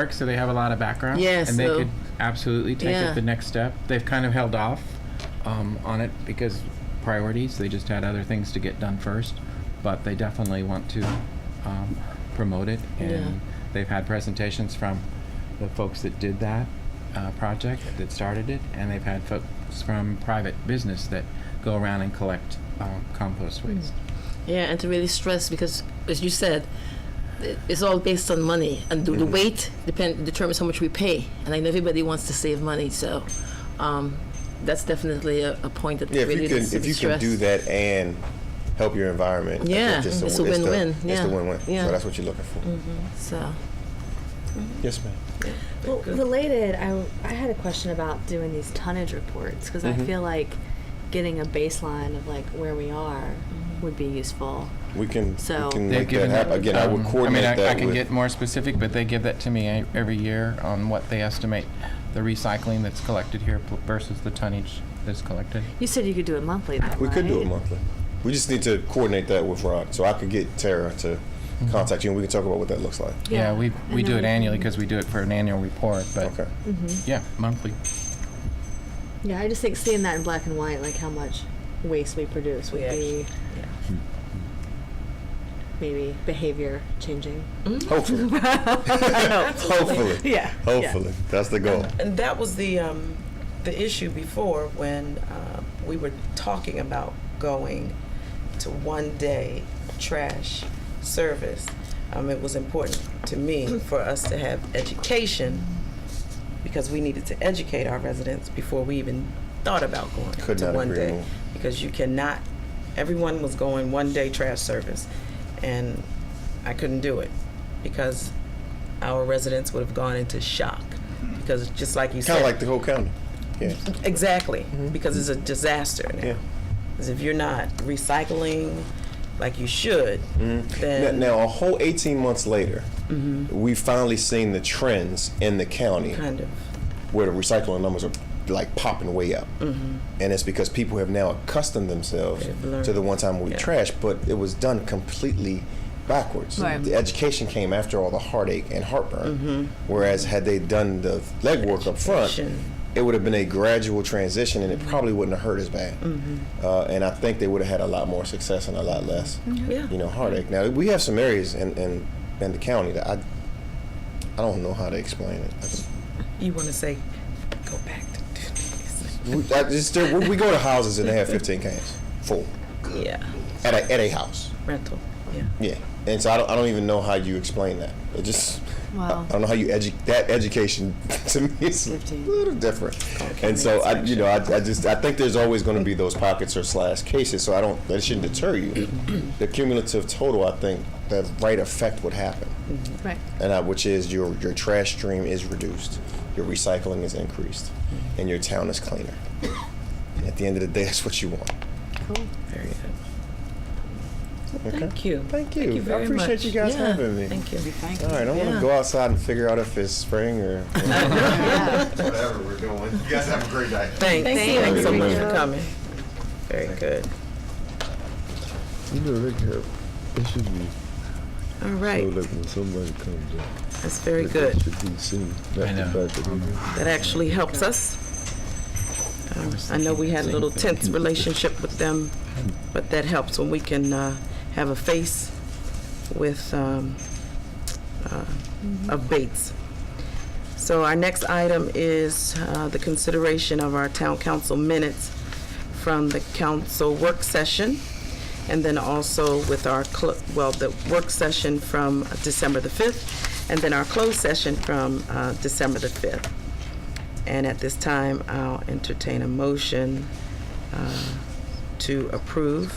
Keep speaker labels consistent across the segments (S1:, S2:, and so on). S1: work, so they have a lot of background.
S2: Yeah,
S1: and they
S2: so-
S1: could absolutely take
S2: Yeah.
S1: it the next step. They've kind of held off um, on it because priorities. They just had other things to get done first, but they definitely want to um, promote it. And they've had presentations from the folks that did that uh, project that started it, and they've had folks from private business that go around and collect um, compost waste.
S2: Yeah, and to really stress because, as you said, i- it's all based on money, and the, the
S3: Mm-hmm.
S2: weight depend determines how much we pay. And I know everybody wants to save money, so um, that's definitely a, a point that
S3: Yeah, if
S2: really
S3: you can,
S2: needs to
S3: if
S2: be
S3: you can do
S2: stressed.
S3: that and help your environment, I think
S2: Yeah,
S3: just
S2: it's a
S3: the-
S2: win-win,
S3: It's
S2: yeah.
S3: the win-win.
S2: Yeah.
S3: So that's what you're looking for.
S2: So
S3: Yes, ma'am.
S4: Well, related, I, w- I had a question about doing these tonnage reports because
S3: Mm-hmm.
S4: I feel like getting a baseline of like where we are
S5: Mm-hmm.
S4: would be useful.
S3: We can,
S4: So-
S3: we can
S1: They've
S3: make that
S1: given
S3: happen. Again, I
S1: um,
S3: would coordinate
S1: I mean, I,
S3: that
S1: I can
S3: with,
S1: get more specific, but they give that to me e- every year on what they estimate the recycling that's collected here pl- versus the tonnage that's collected.
S4: You said you could do it monthly. Though,
S3: We could do
S4: right?
S3: it monthly. We just need to coordinate that with Ron. So I could get Tara to
S1: Mm-hmm.
S3: contact you and we can talk about what that looks like.
S1: Yeah, we,
S4: and
S1: we do
S4: then we
S1: it
S4: can-
S1: annually because we do it for an annual report, but
S3: Okay.
S1: yeah, monthly.
S4: Yeah, I just think seeing that in black and white, like how much waste we produce, would
S2: Yeah.
S4: be
S3: Hmm.
S4: maybe behavior changing.
S3: Hopefully. Hopefully.
S4: Yeah.
S3: Hopefully. That's the goal.
S6: And that was the um, the issue before when uh, we were talking about going to one day trash service. Um, it was important to me for us to have education because we needed to educate our residents before we even thought about going
S3: Could
S6: to
S3: not
S6: one
S3: agree
S6: day
S3: more.
S6: because you cannot everyone was going one day trash service and I couldn't do it because our residents would have gone into shock because just like you
S3: Kind
S6: said
S3: of like the whole county. Yeah.
S6: Exactly, because it's a disaster now.
S3: Yeah.
S6: 'Cause if you're not recycling like you should,
S3: Mm-hmm. Now,
S6: then
S3: now, a whole 18 months later, we finally seen the trends in the county
S6: kind of
S3: where the recycling numbers are like popping way up. And it's because people have now accustomed themselves
S6: Mm-hmm. They've learned.
S3: to the one time we
S6: Yeah.
S3: trash, but it was done completely backwards.
S4: Right.
S3: The education came after all the heartache and heartburn.
S6: Mm-hmm.
S3: Whereas had they done the legwork up front,
S6: Education.
S3: it would have been a gradual transition and it
S6: Mm-hmm.
S3: probably wouldn't have hurt as bad. Uh, and I think they would have had a lot more success and a lot less
S6: Yeah.
S3: you know, heartache. Now, we have some areas in, in, in the county that I, I don't know how to explain it. I-
S6: you want to say, go back to do this.
S3: We, I just, we we go to houses and they have 15 cans full
S6: Yeah,
S3: at a, at a house.
S6: rental. Yeah,
S3: Yeah. And so I don't, I don't even know how you explain that. It just,
S4: Wow.
S3: I, I don't know how you edu- that education to me is a
S4: 15.
S3: little different. And so I, you know, I, I just, I think there's always going to be those pockets or slash cases. So I don't, that shouldn't deter you. the cumulative total, I think the right effect would happen.
S4: Right.
S3: and uh, which is your your trash stream is reduced, your recycling is increased, and your town is cleaner. And at the end of the day, that's what you want.
S4: Cool.
S6: very good.
S3: Okay.
S6: Thank you.
S3: Thank you.
S6: you very
S3: I appreciate
S6: much.
S3: you guys
S2: Yeah,
S3: having me.
S6: Thank you.
S3: All right, I'm
S2: Yeah.
S3: gonna go outside and figure out if it's spring or
S4: Yeah.
S3: whatever we're doing. You guys have a great day.
S6: Thanks.
S4: Thank you.
S6: Thanks so
S3: Thank
S6: much
S3: you.
S6: for coming. Very good.
S7: You know, they have, it should be
S6: All
S7: so
S6: right,
S7: like when somebody comes up,
S6: that's very
S7: that
S6: good.
S7: they should be seen. Not
S1: I
S7: the
S1: know. Um,
S7: fact that they-
S6: That actually helps us. Um, I know we had a little tense relationship with them, but that helps when we can uh, have a face with um, uh, of Bates. So our next item is uh, the consideration of our town council minutes from the council work session, and then also with our, cl- well, the work session from December the 5th, and then our closed session from uh, December the 5th. And at this time, I'll entertain a motion uh, to approve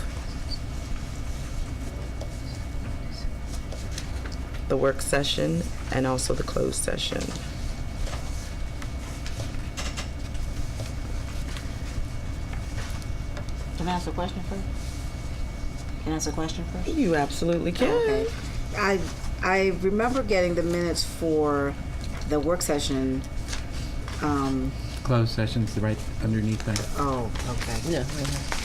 S6: the work session and also the closed session.
S5: Can I ask a question first? Can I ask a question first?
S6: You absolutely
S5: Okay.
S6: can.
S5: I, I remember getting the minutes for the work session. Um,
S1: Closed sessions right underneath that.
S5: oh, okay.
S2: yeah, right here.